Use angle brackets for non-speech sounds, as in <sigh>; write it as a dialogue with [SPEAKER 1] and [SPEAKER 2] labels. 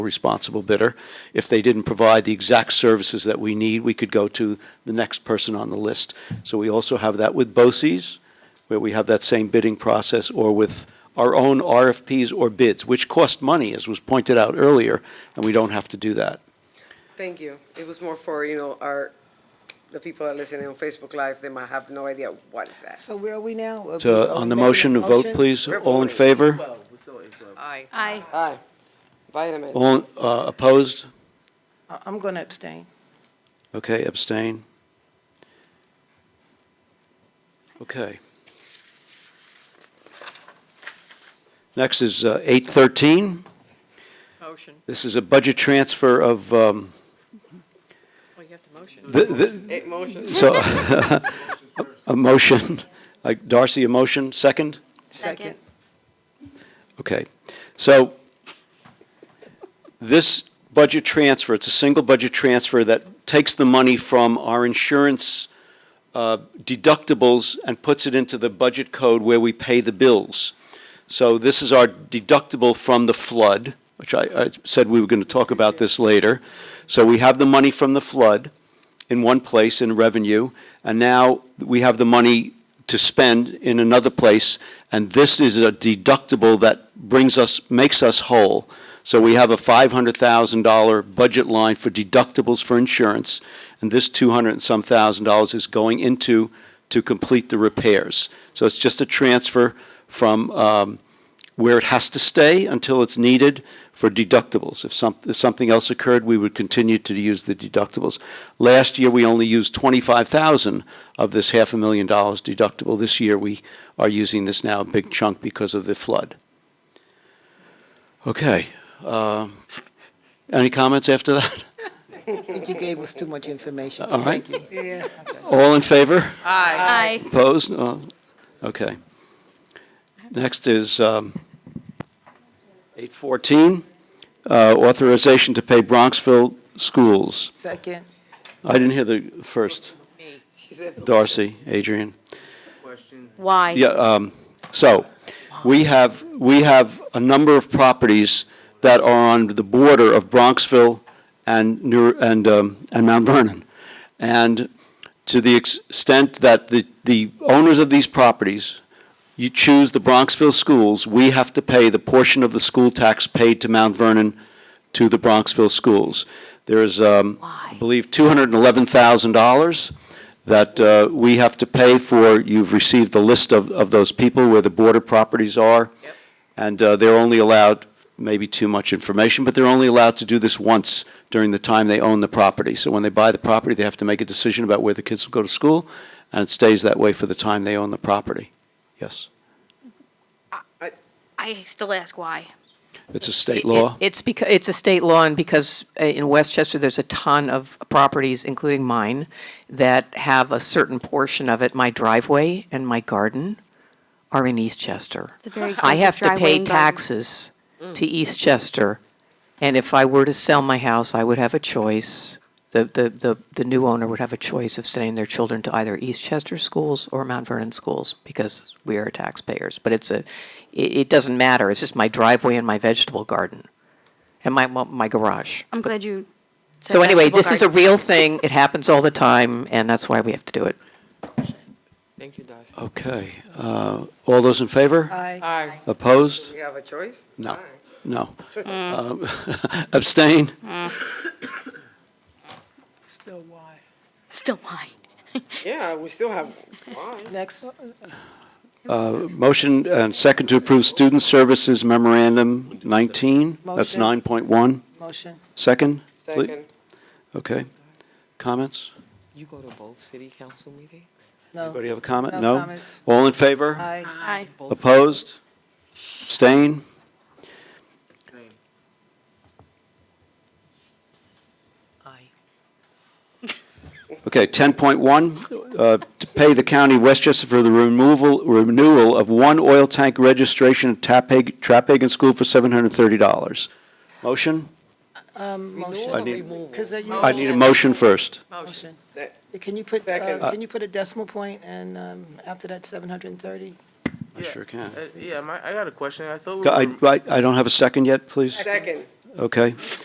[SPEAKER 1] responsible bidder. If they didn't provide the exact services that we need, we could go to the next person on the list. So we also have that with BOCES, where we have that same bidding process, or with our own RFPs or bids, which cost money, as was pointed out earlier, and we don't have to do that.
[SPEAKER 2] Thank you. It was more for, you know, our, the people that are listening on Facebook Live, they might have no idea what is that.
[SPEAKER 3] So where are we now? Are we-
[SPEAKER 1] So
[SPEAKER 3] are
[SPEAKER 1] Uh, on
[SPEAKER 3] we
[SPEAKER 1] the
[SPEAKER 3] back in
[SPEAKER 1] motion, to vote, please.
[SPEAKER 2] We're
[SPEAKER 1] All in
[SPEAKER 2] voting.
[SPEAKER 1] favor?
[SPEAKER 2] Aye.
[SPEAKER 4] Aye.
[SPEAKER 2] Aye. Vitamin.
[SPEAKER 1] All uh, opposed?
[SPEAKER 3] I- I'm going to abstain.
[SPEAKER 1] Okay, abstain. Okay. Next is uh, 813.
[SPEAKER 5] Motion.
[SPEAKER 1] This is a budget transfer of, um,
[SPEAKER 5] Well, Oh, you have to motion.
[SPEAKER 1] th- th-
[SPEAKER 2] Eight motions.
[SPEAKER 1] so, <laughs> a- a motion, Like, Darcy, a motion, second?
[SPEAKER 4] Second.
[SPEAKER 1] Okay, so this budget transfer, it's a single budget transfer that takes the money from our insurance uh, deductibles and puts it into the budget code where we pay the bills. So this is our deductible from the flood, which I, I said we were going to talk about this later. So we have the money from the flood in one place in revenue, and now we have the money to spend in another place, and this is a deductible that brings us, makes us whole. So we have a five hundred thousand dollar budget line for deductibles for insurance, and this two hundred and some thousand dollars is going into to complete the repairs. So it's just a transfer from, um, where it has to stay until it's needed for deductibles. If some, if something else occurred, we would continue to use the deductibles. Last year, we only used twenty-five thousand of this half a million dollars deductible. This year, we are using this now a big chunk because of the flood. Okay, um, any comments after that?
[SPEAKER 3] I think you gave us too much information.
[SPEAKER 1] All right.
[SPEAKER 3] Thank you.
[SPEAKER 1] All in favor?
[SPEAKER 4] Aye.
[SPEAKER 1] Opposed? No. Okay. Next is um, 814, uh, authorization to pay Bronxville schools.
[SPEAKER 3] Second,
[SPEAKER 1] I didn't hear the first.
[SPEAKER 2] She said,
[SPEAKER 1] Darcy, Adrian.
[SPEAKER 4] Why?
[SPEAKER 1] Yeah, um, so, we have, we have a number of properties that are on the border of Bronxville and New, and, um, and Mount Vernon. And to the ex- extent that the, the owners of these properties, you choose the Bronxville schools, we have to pay the portion of the school tax paid to Mount Vernon to the Bronxville schools. There is, um, I
[SPEAKER 4] Why?
[SPEAKER 1] believe, two hundred and eleven thousand dollars that, uh, we have to pay for. You've received the list of, of those people where the border properties are.
[SPEAKER 2] Yep.
[SPEAKER 1] And, uh, they're only allowed, maybe too much information, but they're only allowed to do this once during the time they own the property. So when they buy the property, they have to make a decision about where the kids will go to school, and it stays that way for the time they own the property. Yes.
[SPEAKER 4] I still ask why.
[SPEAKER 1] It's a state
[SPEAKER 5] It-
[SPEAKER 1] law.
[SPEAKER 5] It's because, it's a state law, and because uh, in Westchester, there's a ton of properties, including mine, that have a certain portion of it, my driveway and my garden are in Eastchester.
[SPEAKER 4] It's a very
[SPEAKER 5] I have
[SPEAKER 4] expensive
[SPEAKER 5] to
[SPEAKER 4] driveway
[SPEAKER 5] pay
[SPEAKER 4] and garden.
[SPEAKER 5] taxes to Eastchester, and if I were to sell my house, I would have a choice. The, the, the, the new owner would have a choice of sending their children to either Eastchester schools or Mount Vernon schools, because we are taxpayers. But it's a, it, it doesn't matter, it's just my driveway and my vegetable garden and my, my- my garage.
[SPEAKER 4] I'm glad you. said
[SPEAKER 5] So anyway,
[SPEAKER 4] vegetable
[SPEAKER 5] this is a
[SPEAKER 4] garden.
[SPEAKER 5] real thing, it happens all the time, and that's why we have to do it.
[SPEAKER 6] Thank you, Darcy.
[SPEAKER 1] Okay. Uh, All those in
[SPEAKER 5] Uh,
[SPEAKER 1] favor?
[SPEAKER 3] aye.
[SPEAKER 6] Aye.
[SPEAKER 1] Opposed?
[SPEAKER 2] we have a choice?
[SPEAKER 1] No.
[SPEAKER 2] Aye.
[SPEAKER 1] No. Um, Abstain?
[SPEAKER 3] Still why?
[SPEAKER 4] Still why?
[SPEAKER 2] Yeah, we still have one.
[SPEAKER 3] Next,
[SPEAKER 1] Motion and second to approve Student Services Memorandum 19. That's
[SPEAKER 3] Motion.
[SPEAKER 1] 9.1.
[SPEAKER 3] motion.
[SPEAKER 1] Second? Ple-
[SPEAKER 2] Second.
[SPEAKER 1] Okay. Comments?
[SPEAKER 6] You go to both city council meetings?
[SPEAKER 3] No,
[SPEAKER 1] Anybody have a comment?
[SPEAKER 3] No
[SPEAKER 1] No?
[SPEAKER 3] comments.
[SPEAKER 1] All in favor?
[SPEAKER 3] aye.
[SPEAKER 4] Aye.
[SPEAKER 6] Both
[SPEAKER 1] Opposed? Abstain?
[SPEAKER 5] Aye.
[SPEAKER 1] Okay, 10.1, uh, to pay the county of Westchester for the removal, renewal of one oil tank registration at Tapeg- Trapegan School for $730. Motion?
[SPEAKER 3] Um,
[SPEAKER 1] I
[SPEAKER 3] motion.
[SPEAKER 1] need-
[SPEAKER 3] Because they're
[SPEAKER 1] I need a
[SPEAKER 3] using-
[SPEAKER 1] motion first.
[SPEAKER 3] Motion.
[SPEAKER 2] Sec-
[SPEAKER 3] Can you put,
[SPEAKER 2] Second.
[SPEAKER 3] uh, can you put a decimal point and, um, after that, seven hundred and thirty?
[SPEAKER 1] I sure can.
[SPEAKER 6] Yeah, Uh, my, I got a question. I thought we
[SPEAKER 1] I
[SPEAKER 6] were,
[SPEAKER 1] I- I don't have a second yet, please.
[SPEAKER 2] Second.
[SPEAKER 1] okay?